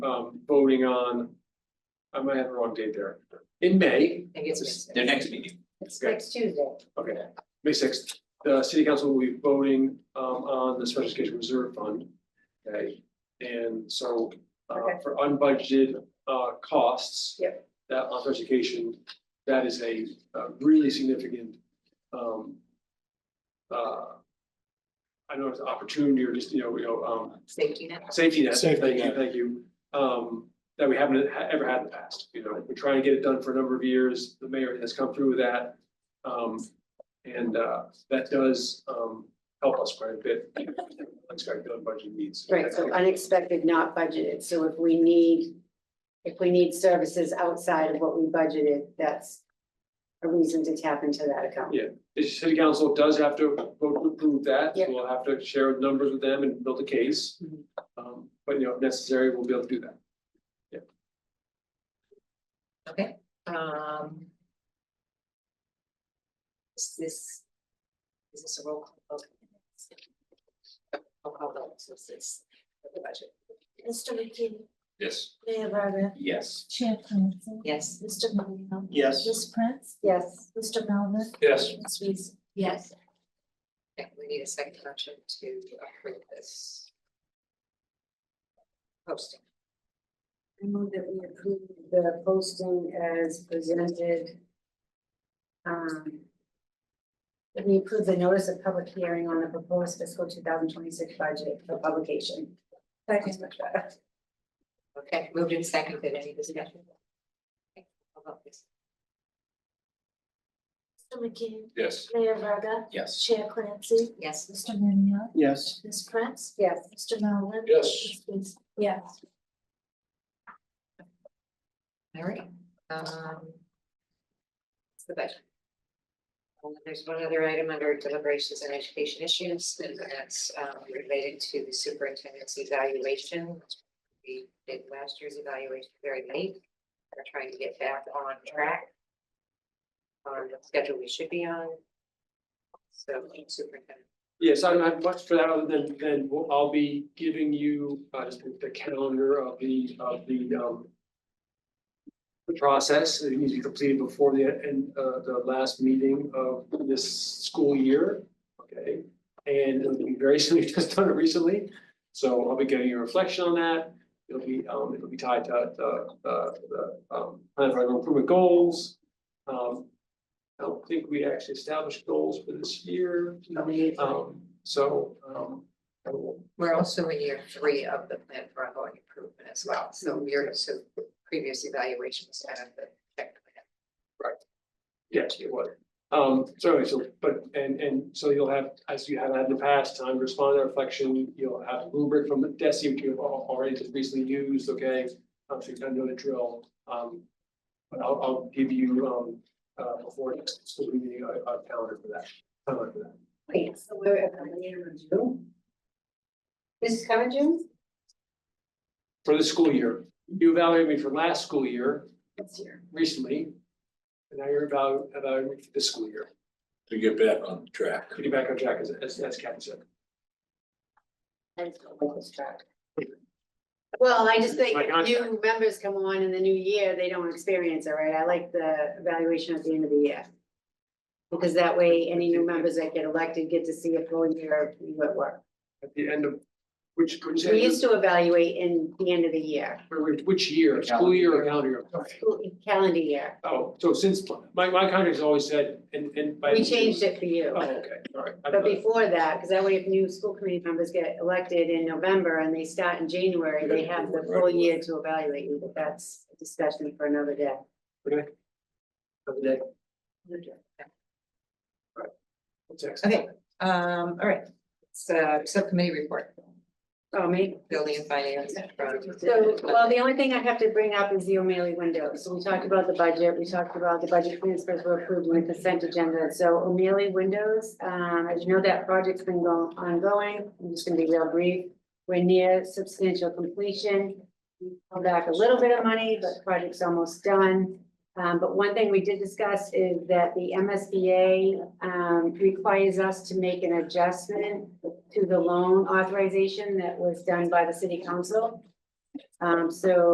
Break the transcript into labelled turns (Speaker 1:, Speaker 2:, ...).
Speaker 1: um, voting on, I might have the wrong date there, in May,
Speaker 2: I think it's.
Speaker 3: Their next meeting,
Speaker 2: It's next Tuesday.
Speaker 1: okay, May sixth, the city council will be voting, um, on the special education reserve fund. Okay, and so, uh,
Speaker 2: Okay.
Speaker 1: for unbudgeted, uh, costs.
Speaker 2: Yep.
Speaker 1: That on special education, that is a, a really significant, um, uh, I don't know if it's opportunity or just, you know, you know, um,
Speaker 2: Safety net.
Speaker 1: safety net,
Speaker 4: Safety
Speaker 1: thank you,
Speaker 4: net.
Speaker 1: thank you, um, that we haven't ha- ever had in the past, you know, we're trying to get it done for a number of years, the mayor has come through with that. Um, and, uh, that does, um, help us quite a bit, unexpected budget needs.
Speaker 5: Right, so unexpected, not budgeted, so if we need, if we need services outside of what we budgeted, that's a reason to tap into that account.
Speaker 1: Yeah. The city council does have to vote to approve that,
Speaker 5: Yeah.
Speaker 1: we'll have to share numbers with them and build a case.
Speaker 5: Mhm.
Speaker 1: Um, but, you know, if necessary, we'll be able to do that.
Speaker 2: Okay, um. Is this, is this a roll call? vote? Roll call vote, so this is the budget.
Speaker 6: Mr. McKee,
Speaker 3: yes,
Speaker 6: Mayor Verda,
Speaker 3: yes,
Speaker 6: Chair Clancy.
Speaker 2: Yes,
Speaker 6: Mr. Marino.
Speaker 4: Yes.
Speaker 6: Ms. Prince,
Speaker 5: Yes,
Speaker 6: Mr. Melvin,
Speaker 1: Yes.
Speaker 6: Ms. Weezer. Yes.
Speaker 2: okay, we need a second motion to approve this. Posting,
Speaker 5: I move that we approve the posting as presented. Um. That we approve the notice of public hearing on the proposed fiscal two thousand twenty-six budget for publication. That is much better.
Speaker 2: okay, moved in second, did any discussion? Okay, roll call, please.
Speaker 6: Mr. McKee,
Speaker 3: yes.
Speaker 6: Mayor Verda,
Speaker 3: Yes.
Speaker 6: Chair Clancy,
Speaker 2: Yes,
Speaker 6: Mr. Marino,
Speaker 4: Yes.
Speaker 6: Ms. Prince,
Speaker 5: Yes.
Speaker 6: Mr. Melvin.
Speaker 3: Yes.
Speaker 6: Ms. Weezer. Yes.
Speaker 2: all right, um. It's the budget. And then there's one other item under deliberations and education issues, and that's um related to the superintendent's evaluation. We did last year's evaluation very late, we're trying to get back on track. On the schedule we should be on. So superintendent,
Speaker 1: Yes, I don't have much for that other than, than we'll- I'll be giving you, uh, just the calendar of the, of the, um, the process, it needs to be completed before the, end uh, the last meeting of this school year, okay? And it'll be very soon, we've just done it recently, so I'll be getting your reflection on that. It'll be, um, it'll be tied to, the uh, the, um, plan for improvement goals. Um, I don't think we actually established goals for this year. Um, so, um, I will-
Speaker 2: we're also in year three of the plan for ongoing improvement as well, so we're, so previous evaluation was kind of the check.
Speaker 1: yes, it was. Um, so, anyway, so, but, and, and so you'll have, as you have had in the past, time to respond to reflection, you'll have a rubric from the DESI, which you've al- already just recently used, okay? Um, so you kind of know the drill, um, but I'll, I'll give you, um, uh, before next school meeting, a, a calendar for that, timeline for that.
Speaker 5: Wait, so we're at the end of June? This is coming June?
Speaker 1: For the school year, you evaluated me for last school year,
Speaker 5: This year.
Speaker 1: recently, and now you're about, about this school year.
Speaker 3: To get back on track.
Speaker 1: Getting back on track, as, as, as Captain said.
Speaker 5: I just don't like this track. Well, I just think
Speaker 1: My
Speaker 5: if new members come on in the new year, they don't experience it, right? I like the evaluation at the end of the year. Because that way, any new members that get elected get to see a full year of what work.
Speaker 1: At the end of, which, which,
Speaker 5: We used to evaluate in the end of the year,
Speaker 1: which year, school year or calendar year?
Speaker 5: school- calendar year.
Speaker 1: Oh, so since, my, my contract's always said, and, and. by-
Speaker 5: We changed it
Speaker 1: Oh,
Speaker 5: for you.
Speaker 1: okay, all right. I
Speaker 5: But
Speaker 1: thought-
Speaker 5: before that, because that way if new school committee members get elected in November and they start in January, they have the full year to evaluate you, but that's a discussion for another day.
Speaker 1: of the day. All right. What's next?
Speaker 2: Okay. Um, all right, it's a subcommittee report,
Speaker 5: Oh, me?
Speaker 2: building and finance.
Speaker 5: So, well, the only thing I have to bring up is the O'Malley window. So we talked about the budget, we talked about the budget transfers were approved with consent agenda. So O'Malley windows, um, as you know, that project's been going, ongoing. I'm just gonna be real brief. We're near substantial completion. We Come back a little bit of money, but the project's almost done. Um, but one thing we did discuss is that the MSBA, um, requires us to make an adjustment to the loan authorization that was done by the city council. Um, so